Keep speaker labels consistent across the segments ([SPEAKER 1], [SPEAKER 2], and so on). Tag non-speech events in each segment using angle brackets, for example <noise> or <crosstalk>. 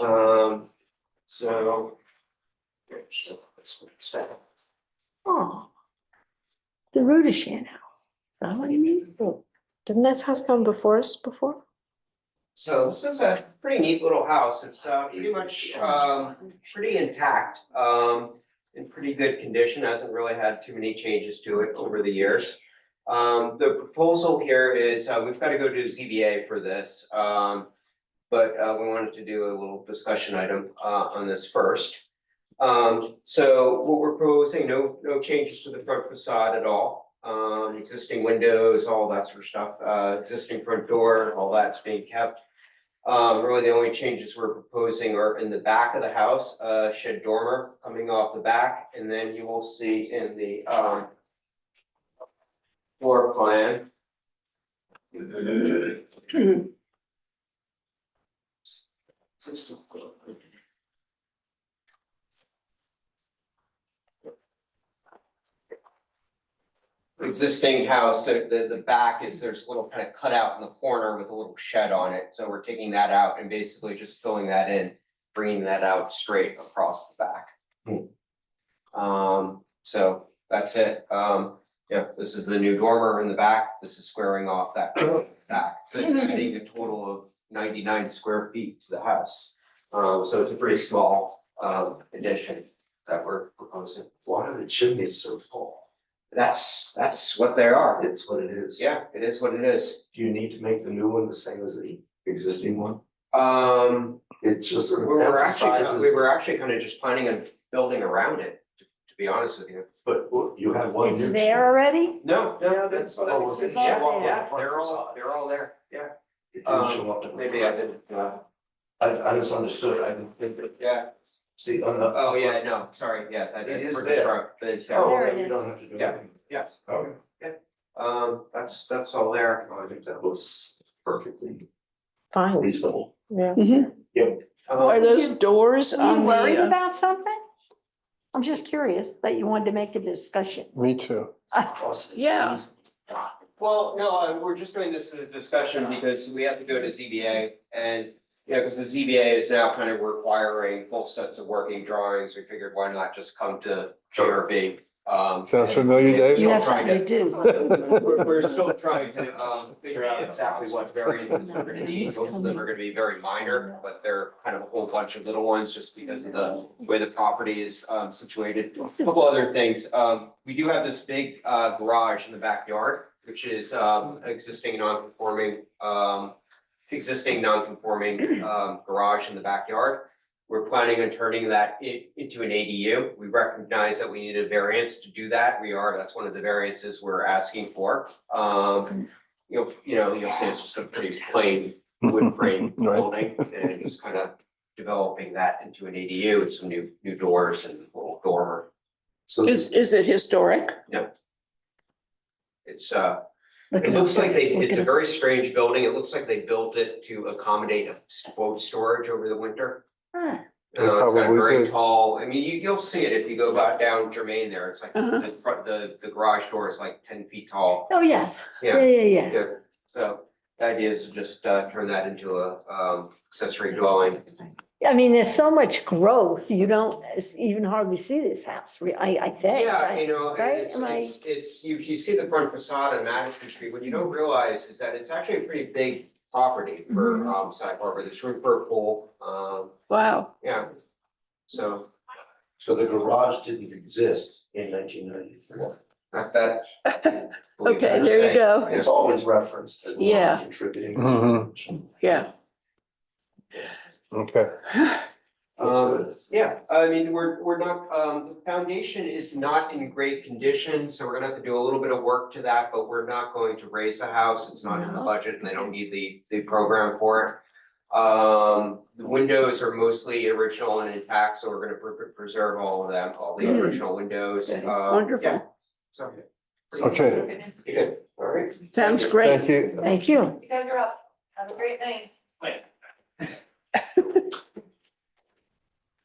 [SPEAKER 1] Um, so.
[SPEAKER 2] Oh. The road is shit now. Is that what you mean?
[SPEAKER 3] Didn't this house come before us before?
[SPEAKER 1] So this is a pretty neat little house. It's uh pretty much um pretty intact, um in pretty good condition, hasn't really had too many changes to it over the years. Um the proposal here is, uh we've got to go to ZBA for this, um but uh we wanted to do a little discussion item uh on this first. Um so what we're proposing, no no changes to the front facade at all. Um existing windows, all that sort of stuff, uh existing front door, all that's being kept. Um, really, the only changes we're proposing are in the back of the house, uh, shed dormer coming off the back, and then you will see in the, um. Floor plan. Existing house, the, the, the back is, there's a little kind of cutout in the corner with a little shed on it, so we're taking that out and basically just filling that in. Bringing that out straight across the back. Um, so that's it, um, yeah, this is the new dormer in the back, this is squaring off that back, so adding a total of ninety-nine square feet to the house. Um, so it's a pretty small, um, addition that we're proposing.
[SPEAKER 4] Why are the chimneys so tall?
[SPEAKER 1] That's, that's what they are.
[SPEAKER 4] It's what it is.
[SPEAKER 1] Yeah, it is what it is.
[SPEAKER 4] Do you need to make the new one the same as the existing one?
[SPEAKER 1] Um,
[SPEAKER 4] It just
[SPEAKER 1] we
[SPEAKER 4] sort of
[SPEAKER 1] were actually, we
[SPEAKER 4] emphasizes,
[SPEAKER 1] were actually kind of just planning on building around it, to to be honest with you.
[SPEAKER 4] but well, you have one new.
[SPEAKER 2] It's there already?
[SPEAKER 1] No,
[SPEAKER 4] no,
[SPEAKER 1] that's,
[SPEAKER 4] that's-
[SPEAKER 1] that's,
[SPEAKER 4] that's-
[SPEAKER 1] yeah,
[SPEAKER 2] yeah,
[SPEAKER 1] yeah, they're all,
[SPEAKER 4] facade.
[SPEAKER 1] they're all there, yeah.
[SPEAKER 4] chimney. It didn't
[SPEAKER 1] um,
[SPEAKER 4] show up. in the
[SPEAKER 1] Maybe I
[SPEAKER 4] front.
[SPEAKER 1] didn't, uh,
[SPEAKER 4] I I misunderstood, I didn't think that,
[SPEAKER 1] yeah,
[SPEAKER 4] see, on the.
[SPEAKER 1] oh, yeah, no, sorry, yeah, that
[SPEAKER 4] It
[SPEAKER 1] is,
[SPEAKER 4] is
[SPEAKER 1] we're
[SPEAKER 4] there.
[SPEAKER 1] just wrong, but it's,
[SPEAKER 4] Oh,
[SPEAKER 1] there.
[SPEAKER 2] There it
[SPEAKER 4] then you
[SPEAKER 2] is.
[SPEAKER 4] don't have to do
[SPEAKER 1] Yeah.
[SPEAKER 4] anything.
[SPEAKER 1] yes.
[SPEAKER 4] Okay,
[SPEAKER 1] Um, that's, that's all there.
[SPEAKER 4] I think that was perfectly
[SPEAKER 3] Fine,
[SPEAKER 4] reasonable.
[SPEAKER 3] yeah.
[SPEAKER 5] Are
[SPEAKER 1] Um,
[SPEAKER 5] those doors
[SPEAKER 2] Are
[SPEAKER 5] on
[SPEAKER 2] you worried
[SPEAKER 5] the, uh,
[SPEAKER 2] about something? I'm just curious that you wanted to make a discussion.
[SPEAKER 6] Me too.
[SPEAKER 5] Yeah.
[SPEAKER 1] Well, no, uh, we're just doing this as a discussion because we have to go to ZBA and, you know, because the ZBA is now kind of requiring full sets of working drawings. We figured why not just come to JRB? Um,
[SPEAKER 6] Sounds
[SPEAKER 1] and-
[SPEAKER 6] familiar,
[SPEAKER 1] and
[SPEAKER 6] Dave?
[SPEAKER 2] You
[SPEAKER 1] still
[SPEAKER 2] have
[SPEAKER 1] trying
[SPEAKER 2] something to
[SPEAKER 1] to-
[SPEAKER 2] do.
[SPEAKER 1] <laughs> We're, we're still trying to, um, figure out exactly what variances we're gonna need. Most of them are gonna be very minor, but they're kind of a whole bunch of little ones just because of the way the property is, um, situated. A Couple other things, um, we do have this big, uh, garage in the backyard, which is, um, existing non-conforming, um, existing non-conforming, um, garage in the backyard. We're planning on turning that i- into an ADU. We recognize that we need a variance to do that. We are, that's one of the variances we're asking for. Um, you'll, you know, you'll see it's just a pretty plain wood frame
[SPEAKER 6] <laughs> Right.
[SPEAKER 1] building and just kind of developing that into an ADU with some new, new doors and little dormer.
[SPEAKER 4] So
[SPEAKER 5] is, is it historic?
[SPEAKER 1] It's, uh,
[SPEAKER 2] Look
[SPEAKER 1] it
[SPEAKER 2] at
[SPEAKER 1] looks
[SPEAKER 2] it.
[SPEAKER 1] like they,
[SPEAKER 2] Look
[SPEAKER 1] it's
[SPEAKER 2] at
[SPEAKER 1] a
[SPEAKER 2] it.
[SPEAKER 1] very strange building. It looks like they built it to accommodate a boat storage over the winter.
[SPEAKER 2] Huh.
[SPEAKER 6] They
[SPEAKER 1] Uh, it's got a
[SPEAKER 6] probably
[SPEAKER 1] very
[SPEAKER 6] did.
[SPEAKER 1] tall, I mean, you, you'll see it if you go back down Jermaine there. It's like
[SPEAKER 5] Uh-huh.
[SPEAKER 1] the front, the, the garage door is like ten feet tall.
[SPEAKER 2] Oh, yes. Yeah,
[SPEAKER 1] Yeah,
[SPEAKER 2] yeah, yeah.
[SPEAKER 1] yeah. So the idea is to just, uh, turn that into a, um, accessory dwelling.
[SPEAKER 2] I mean, there's so much growth. You don't s- even hardly see this house, re- I, I think.
[SPEAKER 1] Yeah,
[SPEAKER 2] right?
[SPEAKER 1] you know, and
[SPEAKER 2] right?
[SPEAKER 1] it's,
[SPEAKER 2] Am I-
[SPEAKER 1] it's, it's, you, you see the front facade on Madison Street, what you don't realize is that it's actually a pretty big property for,
[SPEAKER 2] Mhm.
[SPEAKER 1] um, Sag Harbor, there's room for a pool, um,
[SPEAKER 5] Wow.
[SPEAKER 1] yeah. So,
[SPEAKER 4] so the garage didn't exist in nineteen ninety-four.
[SPEAKER 1] not that.
[SPEAKER 2] <laughs>
[SPEAKER 5] Okay, there you go.
[SPEAKER 4] It's always referenced as
[SPEAKER 5] Yeah.
[SPEAKER 4] not contributing.
[SPEAKER 6] Mhm.
[SPEAKER 5] Yeah.
[SPEAKER 6] Okay.
[SPEAKER 1] Um, yeah, I mean, we're, we're not, um, the foundation is not in great condition, so we're gonna have to do a little bit of work to that, but we're not going to raise the house, it's not in the
[SPEAKER 2] No.
[SPEAKER 1] budget, and they don't need the, the program for it. Um, the windows are mostly original and intact, so we're gonna pre- preserve all of them, all the
[SPEAKER 5] Mm.
[SPEAKER 1] original windows,
[SPEAKER 5] Okay,
[SPEAKER 1] um,
[SPEAKER 5] wonderful.
[SPEAKER 1] yeah, so.
[SPEAKER 6] Okay.
[SPEAKER 1] Good, all right.
[SPEAKER 5] Sounds great.
[SPEAKER 6] Thank you.
[SPEAKER 2] Thank you.
[SPEAKER 7] You guys are up. Have a great night.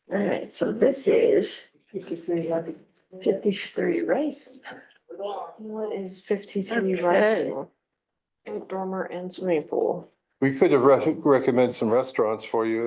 [SPEAKER 2] All right, so this is fifty-three, fifty-three Rice.
[SPEAKER 3] What is fifty-three Rice? Dormer and swimming pool.
[SPEAKER 6] We could have rec- recommended some restaurants for you